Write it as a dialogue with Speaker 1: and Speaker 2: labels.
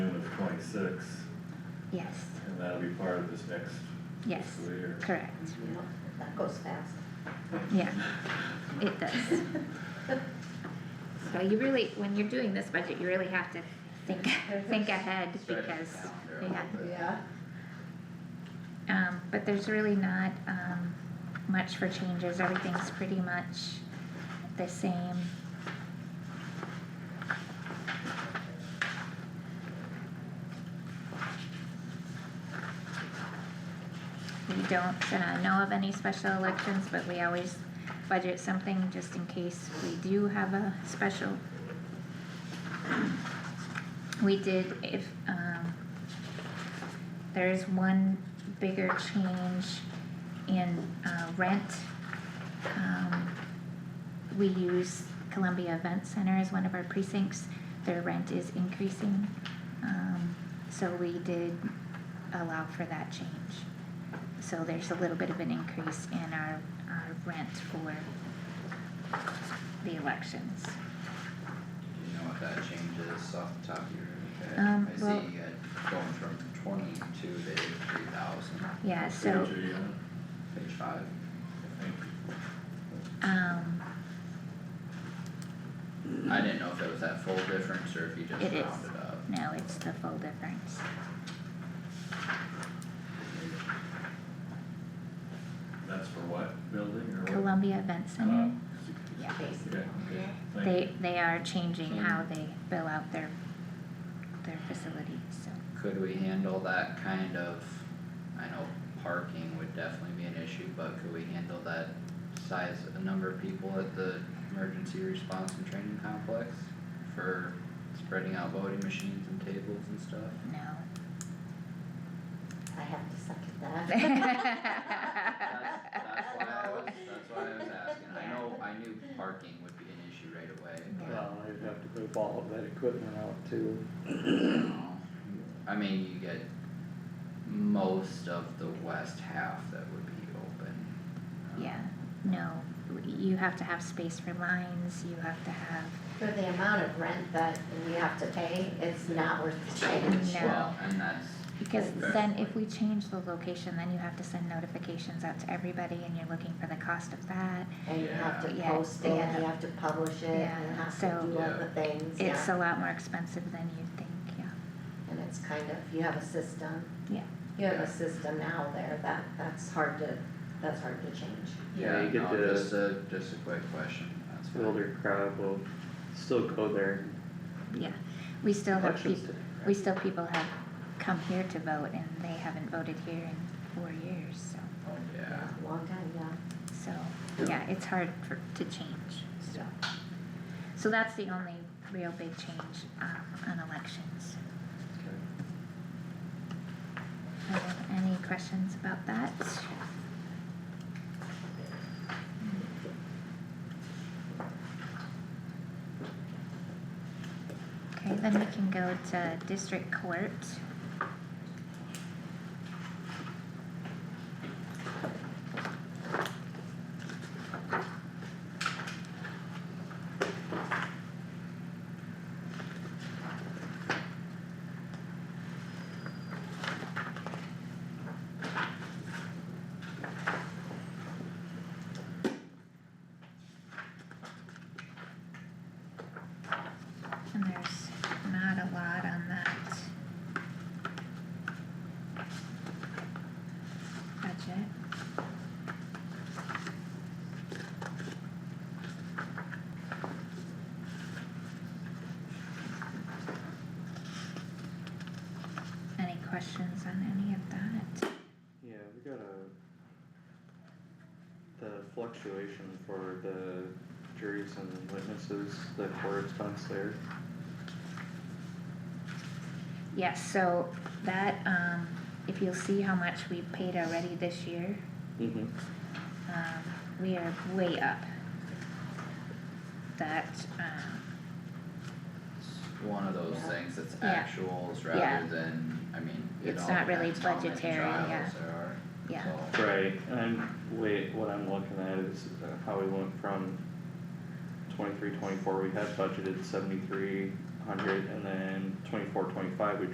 Speaker 1: point six,
Speaker 2: Yes,
Speaker 1: and that'll be part of this next
Speaker 2: yes,
Speaker 1: fiscal year.
Speaker 2: correct,
Speaker 3: Well, That goes fast.
Speaker 2: yeah, it does. So you really, when you're doing this budget, you really have to think, think ahead because, yeah.
Speaker 3: Yeah.
Speaker 2: Um, but there's really not, um, much for changes, everything's pretty much the same. We don't, uh, know of any special elections, but we always budget something just in case we do have a special. We did, if, um, there is one bigger change in uh, rent. Um, We use Columbia Event Center as one of our precincts, their rent is increasing. Um, So we did allow for that change. So there's a little bit of an increase in our, our rent for the elections.
Speaker 4: Do you know what that change is off the top of your head?
Speaker 2: Um,
Speaker 4: I
Speaker 2: well-
Speaker 4: see it going from twenty-two to eighty-three thousand,
Speaker 2: Yeah, so,
Speaker 1: Page eight, huh?
Speaker 4: page five.
Speaker 1: I think.
Speaker 2: um,
Speaker 4: I didn't know if it was that full difference or if you just
Speaker 2: It is.
Speaker 4: rounded up.
Speaker 2: now it's the full difference.
Speaker 1: That's for what building or what?
Speaker 2: Columbia Event
Speaker 1: Uh,
Speaker 2: Center, yeah.
Speaker 1: Okay, okay, thank you.
Speaker 2: They, they are changing how they bill out their, their facilities, so,
Speaker 4: Could we handle that kind of, I know parking would definitely be an issue, but could we handle that size, the number of people at the emergency response and training complex? For spreading out voting machines and tables and stuff?
Speaker 3: I have to second that.
Speaker 2: That's-
Speaker 4: That's why I was, that's why I was asking, I know, I knew parking would be an issue right away,
Speaker 2: no.
Speaker 5: Well, they'd have to move all of that equipment out too.
Speaker 4: you know. um, I mean, you get most of the west half that would be open. um,
Speaker 2: Yeah, no, you have to have space for lines, you have to have,
Speaker 3: For the amount of rent that we have to pay, it's not worth the change.
Speaker 2: No.
Speaker 4: Well, and that's,
Speaker 2: because then if we change the location, then you have to send notifications out to everybody and you're looking for the cost of that.
Speaker 3: And you have to
Speaker 2: Yeah.
Speaker 3: post it, and
Speaker 2: Yeah.
Speaker 3: you have to publish it, and you
Speaker 2: Yeah.
Speaker 3: have to
Speaker 2: So-
Speaker 3: do all the things, yeah.
Speaker 2: It's a lot more expensive than you'd think, yeah,
Speaker 3: And it's kind of, you have a system.
Speaker 2: Yeah.
Speaker 3: You have
Speaker 4: Yeah.
Speaker 3: a system now there that, that's hard to, that's hard to change.
Speaker 5: Yeah,
Speaker 4: yeah,
Speaker 5: you get
Speaker 4: no,
Speaker 5: the-
Speaker 4: just a, just a quick question, that's fine.
Speaker 5: Older crowd will still go there.
Speaker 2: yeah. We still have people.
Speaker 5: Elections day.
Speaker 2: We still, people have come here to vote and they haven't voted here in four years, so,
Speaker 4: Oh, yeah,
Speaker 3: A Long time, yeah.
Speaker 2: so, yeah, it's hard for, to change, so. So that's the only real big change, um, on elections. Are there any questions about that? Okay, then we can go to district court. And there's not a lot on that. Budget. Any questions on any of that?
Speaker 5: Yeah, we got a. The fluctuation for the juries and witnesses, the core expense there.
Speaker 2: Yes, so that, um, if you'll see how much we paid already this year,
Speaker 5: Mm-hmm.
Speaker 2: um, we are way up. That, um,
Speaker 4: it's one of those
Speaker 3: Yeah.
Speaker 4: things that's
Speaker 2: Yeah.
Speaker 4: actuals
Speaker 2: Yeah.
Speaker 4: rather than, I mean, it
Speaker 2: It's
Speaker 4: all
Speaker 2: not really
Speaker 4: depends how many
Speaker 2: budgetary, yeah.
Speaker 4: trials there are, so.
Speaker 2: yeah,
Speaker 5: Right, I'm, wait, what I'm looking at is uh, how we went from twenty-three, twenty-four, we had budgeted seventy-three hundred, and then twenty-four, twenty-five, we